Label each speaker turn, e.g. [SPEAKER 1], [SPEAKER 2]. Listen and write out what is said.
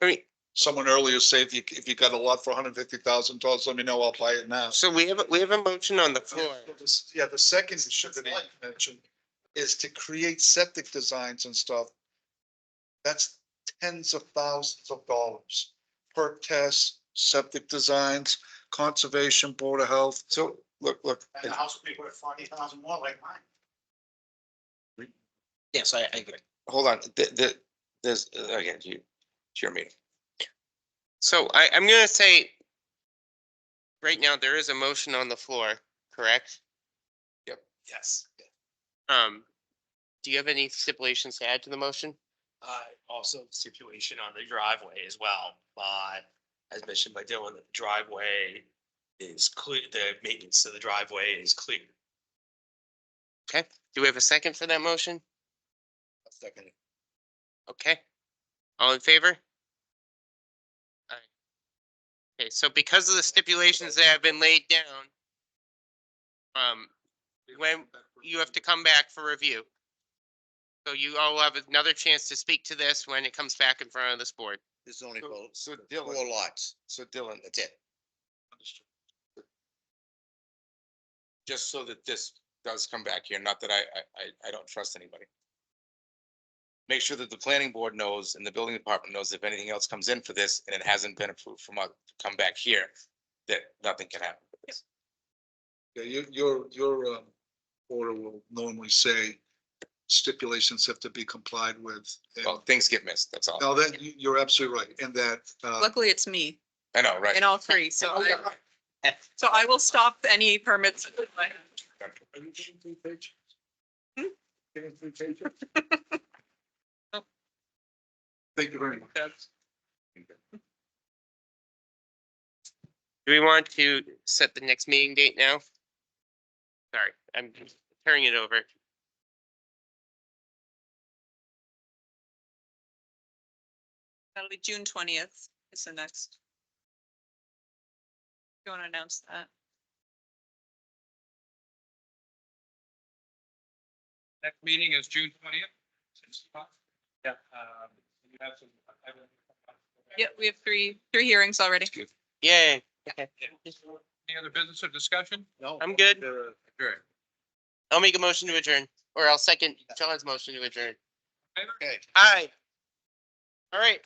[SPEAKER 1] I mean,
[SPEAKER 2] Someone earlier said, if you, if you got a lot for hundred fifty thousand dollars, let me know, I'll buy it now.
[SPEAKER 1] so we have, a- we have a motion on the floor.
[SPEAKER 2] Yeah, the second issue that I mentioned is to create septic designs and stuff. That's tens of thousands of dollars. Perk tests, septic designs, conservation, board of health.
[SPEAKER 1] So, look, look,
[SPEAKER 3] And the house will be worth forty thousand more like mine.
[SPEAKER 4] Yes, I, I agree.
[SPEAKER 5] hold on, the, the, there's,
[SPEAKER 1] uh,
[SPEAKER 5] again, you, it's your meeting.
[SPEAKER 1] so I, I'm gonna say right now, there is a motion on the floor, correct?
[SPEAKER 4] Yes.
[SPEAKER 1] Um, do you have any stipulations to add to the motion?
[SPEAKER 4] Uh, also stipulation on the driveway as well, but as mentioned by Dylan, the driveway is clear, the maintenance to the driveway is clear.
[SPEAKER 1] Do we have a second for that motion?
[SPEAKER 5] Second.
[SPEAKER 1] Okay. All in favor? Aye. Okay, so because of the stipulations that have been laid down, um, when you have to come back for review. So you all have another chance to speak to this when it comes back in front of this board.
[SPEAKER 5] There's only four, four lots. So Dylan, that's it. Just so that this does come back here, not that I, I- I, I don't trust anybody. Make sure that the planning board knows and the building department knows if anything else comes in for this and it hasn't been approved from us, to come back here, that nothing can happen. with this.
[SPEAKER 2] Yeah, your, your, your, um, order will normally say stipulations have to be complied with. And-
[SPEAKER 5] Well, things get missed, that's all.
[SPEAKER 2] No, that, you- you're absolutely right, and that, uh,
[SPEAKER 6] Luckily, it's me
[SPEAKER 5] I know, right?
[SPEAKER 6] in all three, so I, so I will stop any permits.
[SPEAKER 2] thank you very much.
[SPEAKER 1] Do we want to set the next meeting date now? Sorry, I'm turning it over.
[SPEAKER 6] That'll be June twentieth is the next. You want to announce that?
[SPEAKER 7] Next meeting is June twentieth. Yeah. um, you have some- I have a-
[SPEAKER 6] Yeah, we have three, three hearings already.
[SPEAKER 1] Yay,
[SPEAKER 7] Any other business or discussion?
[SPEAKER 3] No.
[SPEAKER 1] I'm good.
[SPEAKER 7] Sure.
[SPEAKER 1] I'll make a motion to adjourn, or I'll second John's motion to adjourn.
[SPEAKER 7] Favor?
[SPEAKER 1] Aye. All right,